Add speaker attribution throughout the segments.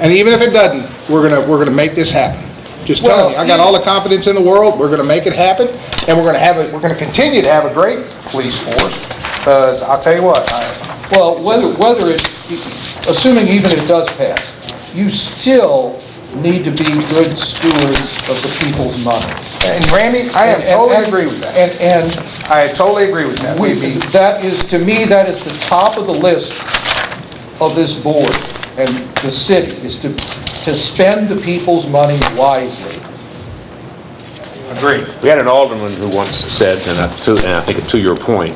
Speaker 1: And even if it doesn't, we're gonna, we're gonna make this happen. Just telling you, I got all the confidence in the world, we're gonna make it happen, and we're gonna have it, we're gonna continue to have a great police force. Because I'll tell you what, I,
Speaker 2: Well, whether, whether it, assuming even it does pass, you still need to be good stewards of the people's money.
Speaker 1: and Randy, I am totally agree with that.
Speaker 2: And, and
Speaker 1: I totally agree with that.
Speaker 2: We-
Speaker 1: We'd be,
Speaker 2: That is, to me, that is the top of the list of this board and the city, is to, to spend the people's money wisely.
Speaker 1: agree.
Speaker 3: We had an alderman who once said, and I, to- and I think to your point,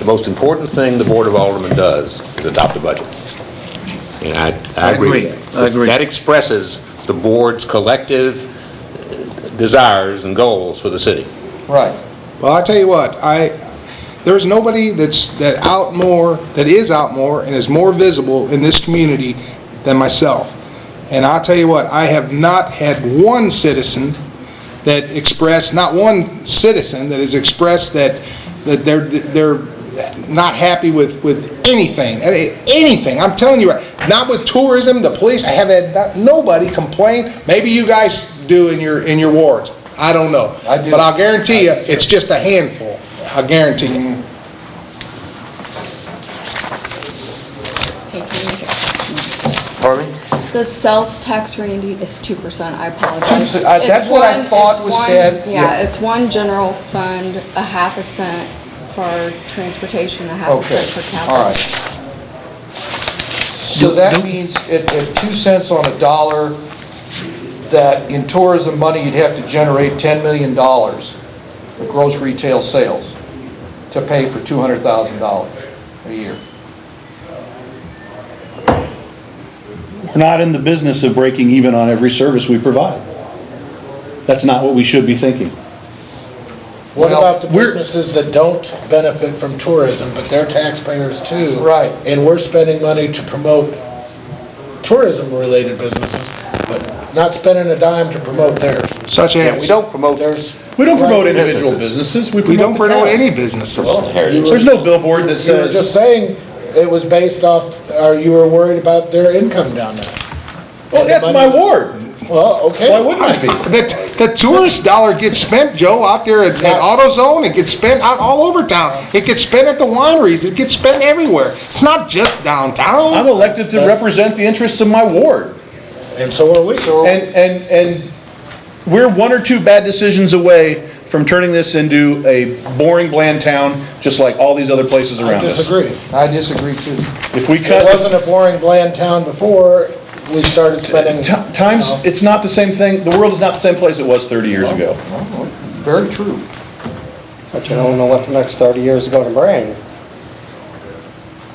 Speaker 3: the most important thing the Board of Aldermen does is adopt a budget. And I, I agree. with
Speaker 4: I agree. I agree.
Speaker 3: That expresses the board's collective desires and goals for the city.
Speaker 2: Right.
Speaker 1: Well, I tell you what, I, there's nobody that's, that out more, that is out more and is more visible in this community than myself. And I'll tell you what, I have not had one citizen that expressed, not one citizen that has expressed that, that they're, they're not happy with, with anything, eh, anything. I'm telling you, right, not with tourism, the police, I have had not- nobody complain. Maybe you guys do in your, in your wards. I don't know.
Speaker 2: I do.
Speaker 1: But I'll guarantee you, it's just a handful. I guarantee you.
Speaker 3: Pardon me?
Speaker 5: The sales tax, Randy, is 2%, I apologize.
Speaker 2: Two se- I-
Speaker 5: It's
Speaker 2: that's what I
Speaker 5: one-
Speaker 2: thought
Speaker 5: it's
Speaker 2: was
Speaker 5: one-
Speaker 2: said.
Speaker 5: Yeah,
Speaker 2: Yeah.
Speaker 5: it's one general fund, a half a cent for transportation, a half a
Speaker 2: Okay,
Speaker 5: cent for capital.
Speaker 2: all right. So that means at, at two cents on a dollar, that in tourism money, you'd have to generate $10 million of gross retail sales to pay for $200,000 a year.
Speaker 4: We're not in the business of breaking even on every service we provide. That's not what we should be thinking.
Speaker 6: What
Speaker 2: Well,
Speaker 6: about the
Speaker 4: we're-
Speaker 6: businesses that don't benefit from tourism, but they're taxpayers too?
Speaker 2: Right.
Speaker 6: And we're spending money to promote tourism-related businesses, but not spending a dime to promote theirs.
Speaker 1: Such
Speaker 3: Yeah, we
Speaker 1: as,
Speaker 3: don't promote,
Speaker 6: There's.
Speaker 4: We don't promote individual
Speaker 3: Businesses.
Speaker 4: businesses, we
Speaker 1: we don't
Speaker 4: promote the
Speaker 1: promote
Speaker 4: town.
Speaker 1: any businesses.
Speaker 4: There's no billboard that
Speaker 6: You were just
Speaker 4: says,
Speaker 6: saying it was based off, or you were worried about their income down there.
Speaker 4: well, that's my ward,
Speaker 6: Well, okay.
Speaker 4: why wouldn't I be?
Speaker 1: The, the tourist dollar gets spent, Joe, out there at, at AutoZone, it gets spent out all over town. It gets spent at the wineries, it gets spent everywhere. It's not just downtown.
Speaker 4: I'm elected to
Speaker 6: That's-
Speaker 4: represent the interests of my ward.
Speaker 6: And so are we.
Speaker 4: And, and, and we're one or two bad decisions away from turning this into a boring, bland town, just like all these other places
Speaker 6: I
Speaker 4: around us.
Speaker 6: disagree.
Speaker 2: I disagree too.
Speaker 4: If we
Speaker 6: It
Speaker 4: cut,
Speaker 6: wasn't a boring, bland town before we started spending.
Speaker 4: ti- times, it's not the same thing, the world is not the same place it was 30 years ago.
Speaker 2: Very true.
Speaker 7: But you don't know what the next 30 years is going to bring.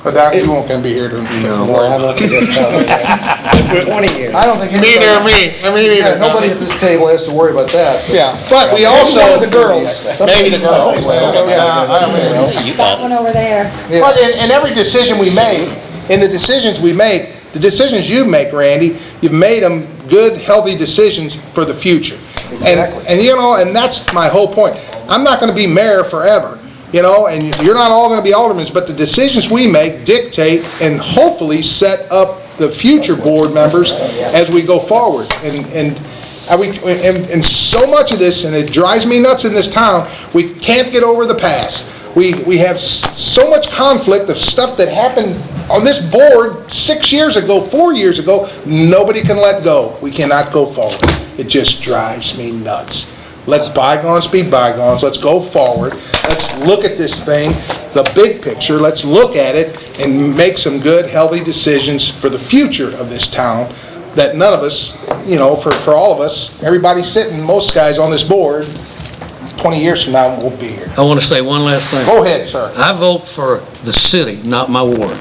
Speaker 1: But Doc, you won't gonna be here to.
Speaker 7: Or how much is it gonna be? 20 years.
Speaker 2: I don't think anybody...
Speaker 1: Neither me, I mean,
Speaker 2: Yeah,
Speaker 1: neither.
Speaker 2: nobody at this table has to worry about that. but-
Speaker 1: Yeah, but we also.
Speaker 2: Maybe one of the girls.
Speaker 1: Maybe the girls. Oh, Well, yeah, I mean,
Speaker 8: That one over there.
Speaker 1: But in, in every decision we make, in the decisions we make, the decisions you make, Randy, you've made them good, healthy decisions for the future. And,
Speaker 2: Exactly.
Speaker 1: and you know, and that's my whole point. I'm not gonna be mayor forever, you know, and you're not all gonna be aldermen, but the decisions we make dictate and hopefully set up the future board members as we go forward. And, and I- we- And and so much of this, and it drives me nuts in this town, we can't get over the past. We we have s- so much conflict of stuff that happened on this board six years ago, four years ago, nobody can let go. We cannot go forward. It just drives me nuts. Let's bygones be bygones, let's go forward, let's look at this thing, the big picture, let's look at it and make some good, healthy decisions for the future of this town that none of us, you know, for, for all of us, everybody sitting, most guys on this board, 20 years from now, won't be here.
Speaker 9: I want to say one last thing.
Speaker 1: Go ahead, sir.
Speaker 9: I vote for the city, not my ward.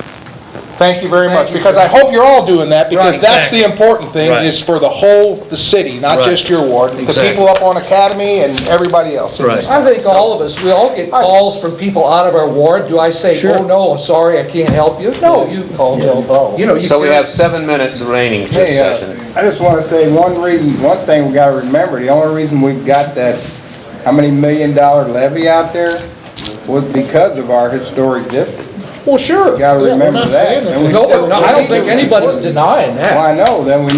Speaker 1: Thank you very much, because I hope you're all doing that, because
Speaker 9: Right.
Speaker 1: that's the important thing,
Speaker 9: Right.
Speaker 1: is for the whole, the city, not
Speaker 9: Right.
Speaker 1: just your ward, the
Speaker 9: Exactly.
Speaker 1: people up on Academy and everybody else. in this
Speaker 2: I think all of us, we all get calls from people out of our ward. Do I say, oh, no, I'm sorry, I can't help you? No, you call Del You know, you
Speaker 3: so we
Speaker 2: can't-
Speaker 3: have seven minutes remaining to this
Speaker 7: Hey, uh,
Speaker 3: session.
Speaker 7: I just want to say one reason, one thing we got to remember, the only reason we got that, how many million dollar levy out there was because of our historic district.
Speaker 2: Well, sure.
Speaker 7: Got to
Speaker 6: Yeah, we're
Speaker 7: remember
Speaker 6: not
Speaker 7: that.
Speaker 6: saying that
Speaker 7: and we
Speaker 2: No,
Speaker 7: still-
Speaker 2: but no, I don't think anybody's denying that.
Speaker 7: Well, I know, then we